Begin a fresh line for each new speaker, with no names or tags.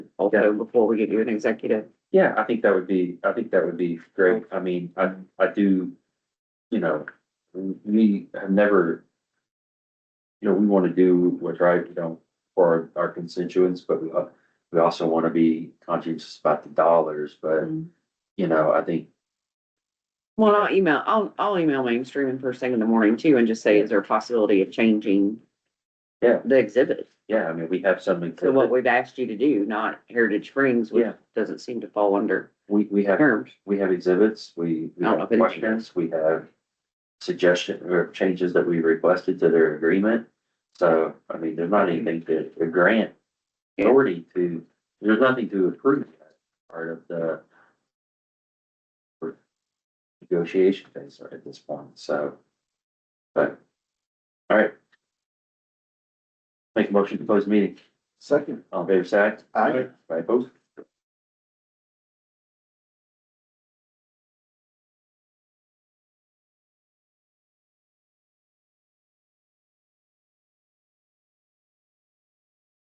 also before we get you an executive.
Yeah, I think that would be, I think that would be great. I mean, I, I do, you know, we have never, you know, we want to do what's right, you know, for our constituents, but we, al- we also want to be conscientious about the dollars, but, you know, I think,
Well, I'll email, I'll, I'll email mainstream and first thing in the morning too and just say, is there a possibility of changing
Yeah.
the exhibit
yeah, I mean, we have something.
to what we've asked you to do, not Heritage Springs, which
Yeah,
doesn't seem to fall under
we, we have,
terms.
we have exhibits, we, we
I don't know
have
if it is.
questions, we have suggestion or changes that we requested to their agreement. So, I mean, there's not anything to, a grant
Yeah.
authority to, there's nothing to approve that part of the negotiation phase at this point, so, but, all right. Make a motion to close meeting.
Second.
All in favor, say aye.
Aye.
By vote.